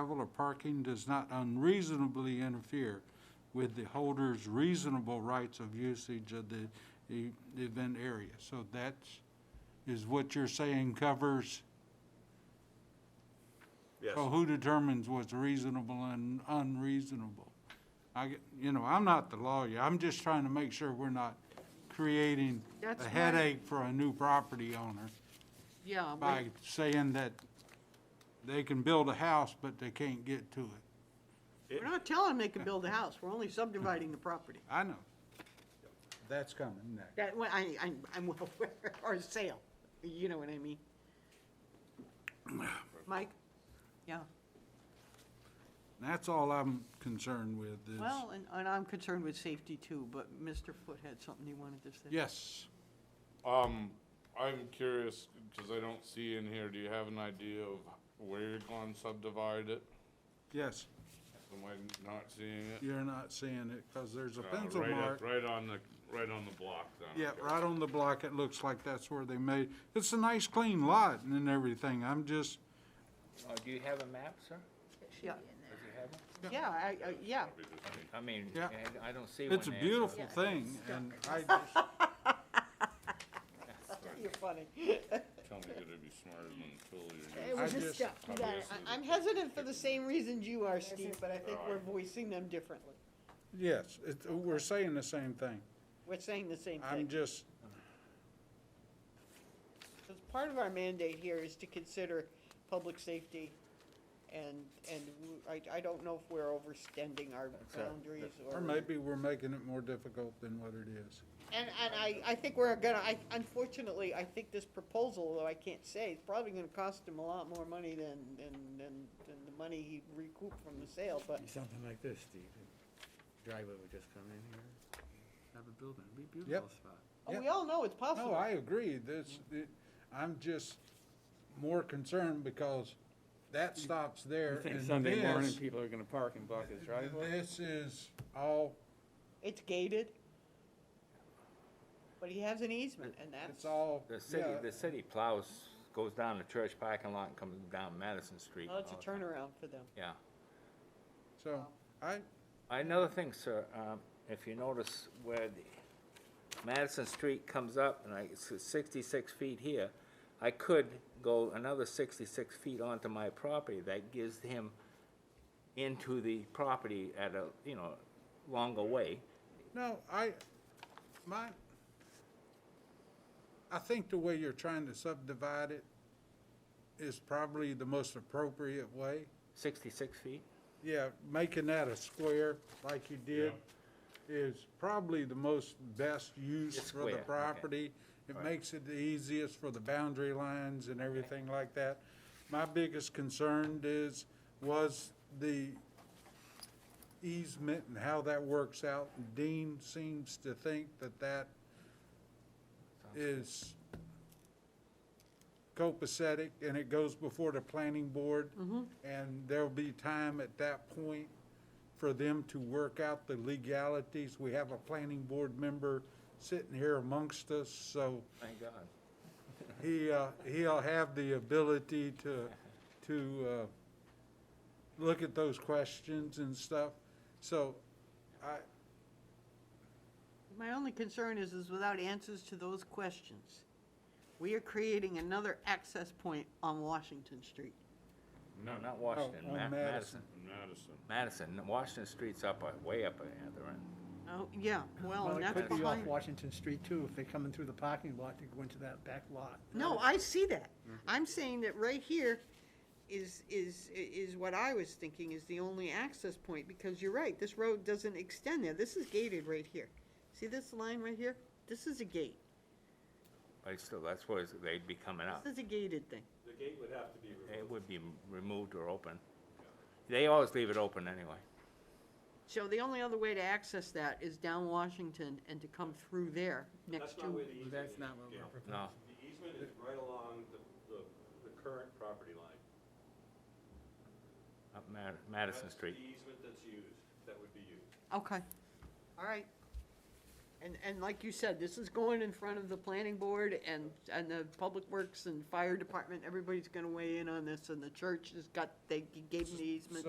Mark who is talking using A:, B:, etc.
A: Travel or parking does not unreasonably interfere with the holder's reasonable rights of usage of the e- event area. So that's, is what you're saying covers,
B: Yes,
C: Oh.
A: so who determines what's reasonable and unreasonable? I, get- you know, I'm not the lawyer, I'm just trying to make sure we're not creating
D: That's
A: a
D: right.
A: headache for a new property owner
D: Yeah, we-
A: by saying that they can build a house, but they can't get to it.
D: we're not telling them they can build a house, we're only subdividing the property.
A: I know. That's coming next.
D: That, well, I, I'm, I'm well aware, or sale, you know what I mean? Mike? Yeah,
A: That's all I'm concerned with is,
D: well, and, and I'm concerned with safety too, but Mr. Foot had something he wanted to say.
A: yes.
E: Um, I'm curious, because I don't see in here, do you have an idea of where you're going to subdivide it?
A: Yes,
E: Am I not seeing it?
A: you're not seeing it because there's a
E: Uh,
A: pencil
E: right up-
A: mark.
E: Right on the, right on the block then. I
A: Yeah,
E: guess.
A: right on the block, it looks like that's where they made, it's a nice clean lot and everything. I'm just,
F: Oh, do you have a map, sir?
D: Yeah,
F: Does he have one?
D: yeah, I, I, yeah,
F: I mean,
A: Yeah.
F: I- I don't see one
A: it's a
F: there, so-
A: beautiful thing and I just,
D: you're funny.
E: Tell me you're gonna be smarter than Phil,
G: It
D: Oh,
E: you're
G: was
A: I
G: just
A: just-
G: stuff, you got it.
E: Obvious.
D: I- I'm hesitant for the same reasons you are, Steve, but I think we're voicing them differently.
A: yes, it, we're saying the same thing.
D: We're saying the same
A: I'm
D: thing.
A: just,
D: Because part of our mandate here is to consider public safety, and, and w- I, I don't know if we're overstanding our boundaries or.
A: or maybe we're making it more difficult than what it is.
D: And, and I, I think we're gonna, I, unfortunately, I think this proposal, though I can't say, it's probably gonna cost him a lot more money than, than, than, than the money he recouped from the sale, but,
C: Something like this, Steve. Driveway would just come in here, have a building, it'd be a
A: Yep.
C: beautiful spot.
D: oh, we all know it's
A: No,
D: possible.
A: I agree. This, it- I'm just more concerned because that stops there.
C: think
A: and
C: Sunday morning
A: this-
C: people are gonna park and block his driveway?
A: This is all,
D: It's gated. But he has an easement, and
A: it's
D: that's, oh,
A: all,
F: The city,
A: yeah,
F: the city plows, goes down the church parking lot and comes down Madison Street. and
D: it's
F: all
D: a
F: that.
D: turnaround for them.
F: Yeah.
A: so, I,
F: Another thing, sir, um, if you notice where the Madison Street comes up, and I, it's sixty-six feet here, I could go another sixty-six feet onto my property, that gives him into the property at a, you know, longer way.
A: no, I, my, I think the way you're trying to subdivide it is probably the most appropriate way.
F: Sixty-six feet?
A: Yeah, making that a square like you did is probably the most best use
F: Just
A: for the
F: square, okay.
A: property. It makes it the easiest for the boundary lines and everything like that. My biggest concern is, was the easement and how that works out. Dean seems to think that that is copacetic and it goes before the planning board. And there'll be time at that point for them to work out the legalities. We have a planning board member sitting here amongst us, so
F: Thank God.
A: he, uh, he'll have the ability to, to, uh, look at those questions and stuff. So I,
D: My only concern is, is without answers to those questions, we are creating another access point on Washington Street.
F: No, not
A: oh,
F: Washington, Ma-
A: on Madison,
F: Madison.
E: Madison.
F: Madison, Washington Street's up, uh, way up at the other end.
D: Oh, yeah, well,
H: Well,
D: and
H: it
D: that's
H: could be off
D: behind.
H: Washington Street too, if they're coming through the parking lot to go into that back lot.
D: No, I see that.
H: Mm-hmm.
D: I'm saying that right here is, is, is what I was thinking is the only access point, because you're right, this road doesn't extend there. This is gated right here. See this line right here? This is a gate.
F: But still, that's where it's- they'd be coming up.
D: This is a gated thing.
B: the gate would have to be removed.
F: It would be m- removed or open. They always leave it open anyway.
D: So the only other way to access that is down Washington and to come through there next
B: That's not
D: to.
B: where the easement is.
C: That's not what
B: Gail.
C: we're
F: No,
B: The easement is right along the, the, the current property line.
F: up Ma- Madison
B: That's
F: Street.
B: the easement that's used, that would be used.
D: Okay. All right. And, and like you said, this is going in front of the planning board and, and the public works and fire department, everybody's gonna weigh in on this, and the church has got, they gave me easement.